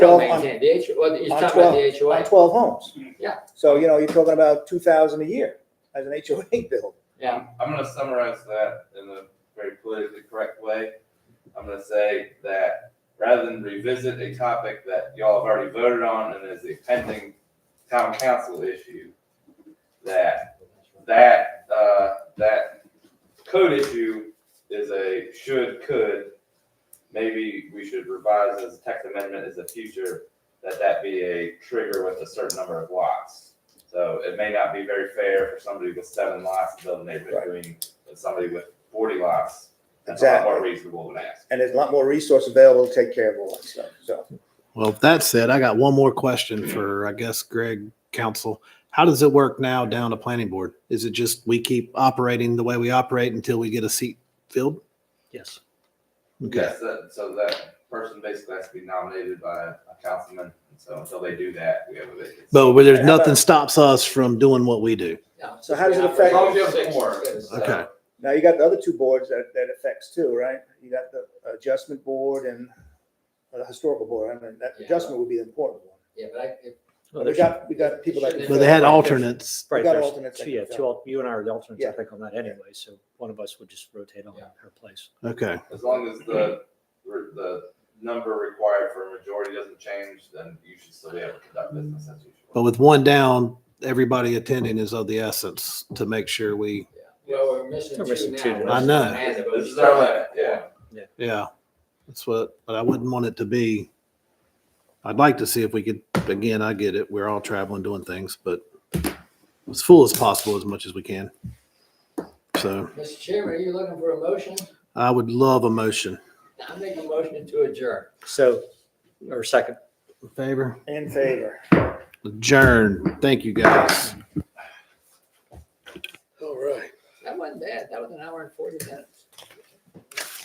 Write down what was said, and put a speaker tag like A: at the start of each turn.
A: Twelve
B: buildings
A: on-
B: and the HOA, well, you're
A: on
B: talking about the
A: on
B: HOA,
A: twelve homes.
B: Yeah.
A: So, you know, you're talking about two thousand a year as an HOA bill.
B: yeah,
C: I'm gonna summarize that in a very politically correct way. I'm gonna say that rather than revisit a topic that y'all have already voted on and is a pending town council issue, that, that, uh, that code issue is a should, could. Maybe we should revise as a text amendment as a future, that that be a trigger with a certain number of lots. So it may not be very fair for somebody with seven lots to build a neighborhood green, but somebody with forty lots, that's a lot more
A: Exactly.
C: reasonable than ask.
A: And there's a lot more resource available to take care of all that stuff, so.
D: Well, if that said, I got one more question for, I guess, Greg Council. How does it work now down to planning board? Is it just we keep operating the way we operate until we get a seat filled?
E: Yes.
D: Okay,
C: Yes, that- so that person basically has to be nominated by a councilman, and so until they do that, we have a vacancy.
D: but where there's
A: How about-
D: nothing stops us from doing what we do.
B: yeah.
A: So how does it
B: Yeah,
A: affect-
C: As long as you have
B: six,
C: four,
B: six.
C: so-
D: Okay.
A: Now you got the other two boards that, that affects too, right? You got the adjustment board and uh, the historical board. I mean, that
B: Yeah.
A: adjustment would be the important one.
B: Yeah, but I, if-
E: Well,
A: We
E: there's,
A: got, we got people that. can
D: But they had
A: fill it.
D: alternates.
A: we
E: right,
A: got
E: there's
A: alternates that
E: two, yeah,
A: can fill.
E: two, al- you and I are the alternates,
A: Yeah.
E: I think, on that anyway, so one of us would just rotate on
B: Yeah.
E: her place.
D: Okay,
C: As long as the, the number required for a majority doesn't change, then you should still be able to conduct business as usual.
D: but with one down, everybody attending is of the essence to make sure we,
B: well, we're missing
E: We're missing
B: two
E: two
B: now.
E: now.
D: I know.
B: Amanda, but we
C: This is our
B: still-
C: limit, yeah.
D: yeah, that's what, but I wouldn't want it to be. I'd like to see if we could, again, I get it, we're all traveling, doing things, but as full as possible as much as we can. So.
B: Mr. Chairman, are you looking for a motion?
D: I would love a motion.
B: I make a motion to adjourn.
E: So, or second.
D: In favor?
A: In favor.
D: Adjourn. Thank you, guys.
B: That wasn't bad, that was an hour and forty minutes.